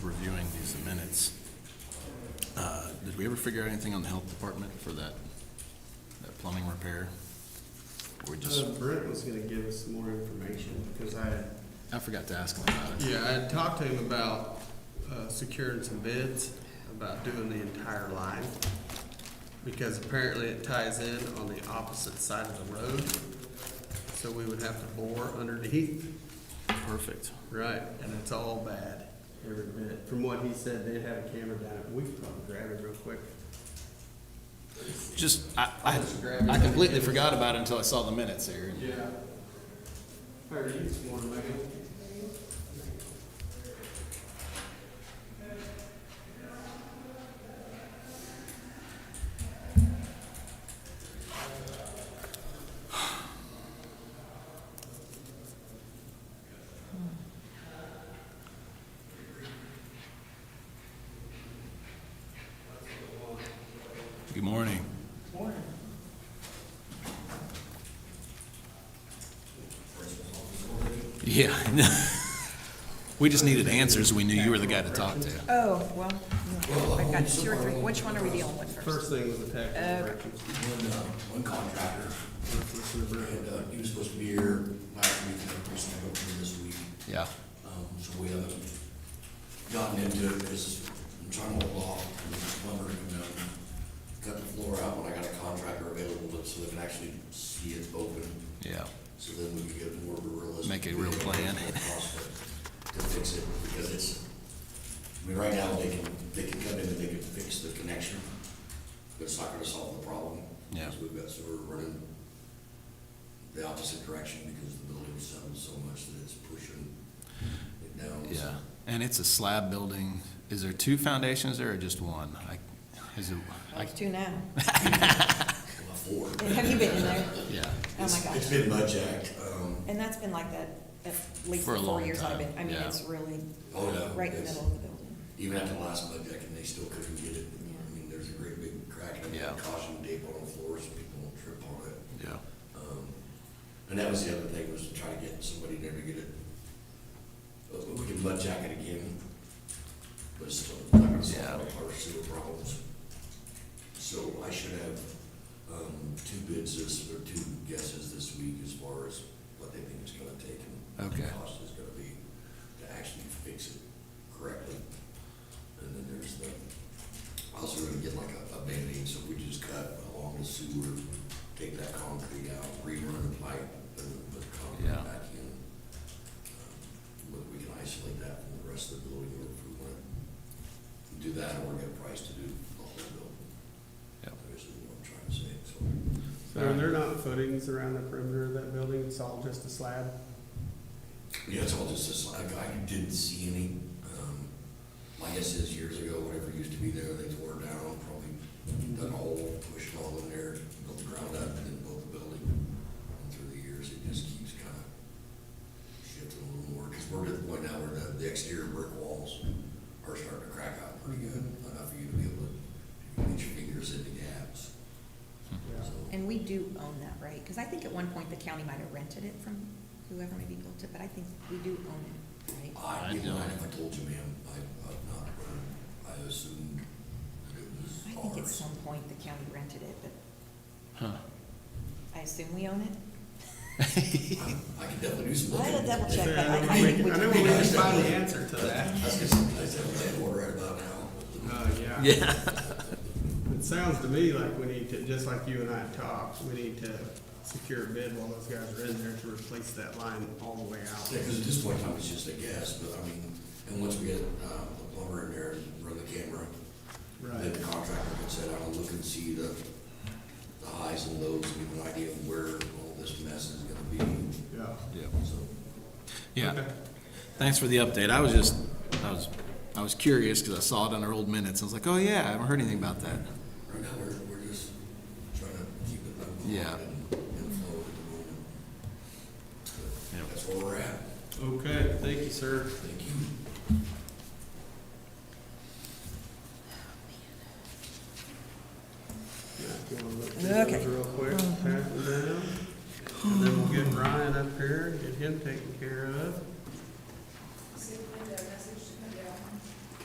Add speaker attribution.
Speaker 1: is the minutes. Uh, Did we ever figure out anything on the health department for that, that plumbing repair? Or we just,
Speaker 2: Uh, Brent was gonna give us some more information, because I, had-
Speaker 1: I forgot to ask him about it.
Speaker 2: yeah, I had talked to him about, uh, securing some bids, about doing the entire line. Because apparently it ties in on the opposite side of the road, so we would have to bore underneath.
Speaker 1: Perfect.
Speaker 2: Right, and it's all bad, every bit. From what he said, they had a camera down, it. we could probably grab it real quick.
Speaker 1: Just, I, I I completely forgot about it until I saw the minutes here.
Speaker 2: Yeah. Heard you this morning, man.
Speaker 1: Good morning. Yeah. We just needed answers. We knew you were the guy to talk to.
Speaker 3: Oh, well, I've got two or three, which one are we dealing with first?
Speaker 2: First thing was the tax
Speaker 3: Uh,
Speaker 2: collections.
Speaker 4: One, uh, one contractor, and, uh, he was supposed to be here last week, and the person I got from this week.
Speaker 1: Yeah.
Speaker 4: Um, so we haven't gotten into it, because I'm trying to hold off, and this plumber, you know, cut the floor out when I got a contractor available, but so they can actually see it's open,
Speaker 1: Yeah.
Speaker 4: so then we can get more of a realistic.
Speaker 1: Make a real plan.
Speaker 4: To fix it, because it's, I mean, right now, they can, they can come in and they can fix the connection, but it's not gonna solve the problem.
Speaker 1: Yeah.
Speaker 4: So we've got, so we're running the opposite direction, because the building settled so much that it's pushing it down. so-
Speaker 1: Yeah. And it's a slab building. Is there two foundations there or just one? I, is it, I,
Speaker 3: It's two now.
Speaker 4: Well, Four.
Speaker 3: Have you been in there?
Speaker 1: yeah.
Speaker 3: Oh, my
Speaker 4: It's- It's
Speaker 3: gosh.
Speaker 4: been mud jacked, um,
Speaker 3: And that's been like that at least
Speaker 1: For a
Speaker 3: the four
Speaker 1: long
Speaker 3: years I've been,
Speaker 1: time,
Speaker 3: I mean,
Speaker 1: yeah.
Speaker 3: it's really
Speaker 4: oh no.
Speaker 3: right in the
Speaker 4: it's-
Speaker 3: middle of the building.
Speaker 4: Even after the last mud jack, and they still couldn't get it, I mean, there's a great big crack, and
Speaker 1: Yeah.
Speaker 4: I caution tape on the floor, so people don't trip on it.
Speaker 1: Yeah.
Speaker 4: Um, And that was the other thing, was to try to get somebody there to get it, uh, we can mud jack it again, but it's still not gonna solve all our sewer problems. So I should have, um, two bids this, or two guesses this week as far as what they think it's gonna take and what the
Speaker 1: Okay.
Speaker 4: cost is gonna be to actually fix it correctly. And then there's the, also gonna get like a, a Band-Aid, so we just cut along the sewer, take that concrete out, rerun the pipe, and then put the
Speaker 1: Yeah.
Speaker 4: concrete back in. Um, But we can isolate that from the rest of the building, or if we wanna do that, or get a price to do the whole building.
Speaker 1: Yep.
Speaker 4: That's what I'm trying to say, so.
Speaker 2: So are there not footings around the perimeter of that building? It's all just a slab?
Speaker 4: Yeah, it's all just a slab, I didn't see any, um, my guess is years ago, whatever used to be there, they tore it down, probably dug a hole, pushed it all in there, built the ground up, and then built the building. And through the years, it just keeps kind of shifting a little more, because we're at the point now where the, the exterior brick walls are starting to crack out pretty good, enough for you to be able to get your fingers in the gaps, so.
Speaker 3: And we do own that, right? Because I think at one point the county might have rented it from whoever maybe built it, but I think we do own it, right?
Speaker 4: I
Speaker 1: I
Speaker 4: didn't
Speaker 1: don't.
Speaker 4: mind if I told you, ma'am, I, I've not, heard. I assumed that it
Speaker 3: I
Speaker 4: was
Speaker 3: think at
Speaker 4: ours.
Speaker 3: some point the county rented it, but
Speaker 1: Huh.
Speaker 3: I assume we own it.
Speaker 4: I can definitely do some
Speaker 3: I
Speaker 4: looking.
Speaker 3: had to double check, but
Speaker 2: Yeah,
Speaker 3: I
Speaker 2: I
Speaker 3: I
Speaker 2: know
Speaker 3: think
Speaker 2: we-
Speaker 3: we
Speaker 2: I know
Speaker 3: can.
Speaker 2: we can find the answer to that.
Speaker 4: That's just, that's a landlord right about now.
Speaker 2: Uh, yeah.
Speaker 1: Yeah.
Speaker 2: It sounds to me like we need to, just like you and I talked, we need to secure a bid while those guys are in there to replace that line all the way out.
Speaker 4: Yeah, because at this point in time, it's just a guess, but I mean, and once we get, uh, the plumber in there and run the camera, then the
Speaker 2: Right.
Speaker 4: contractor can sit down and look and see the, the highs and lows, and give an idea of where all this mess is gonna be,
Speaker 2: Yeah.
Speaker 1: Yeah.
Speaker 4: so.
Speaker 1: Yeah.
Speaker 2: Okay.
Speaker 1: Thanks for the update. I was just, I was, I was curious because I saw it on our old minutes. I was like, oh yeah, I haven't heard anything about that.
Speaker 4: Right now, we're, we're just trying to keep it moving.
Speaker 1: Yeah.
Speaker 4: And and flow at the moment.
Speaker 1: Yeah.
Speaker 4: That's where we're at.
Speaker 2: Okay, thank you, sir.
Speaker 4: Thank you.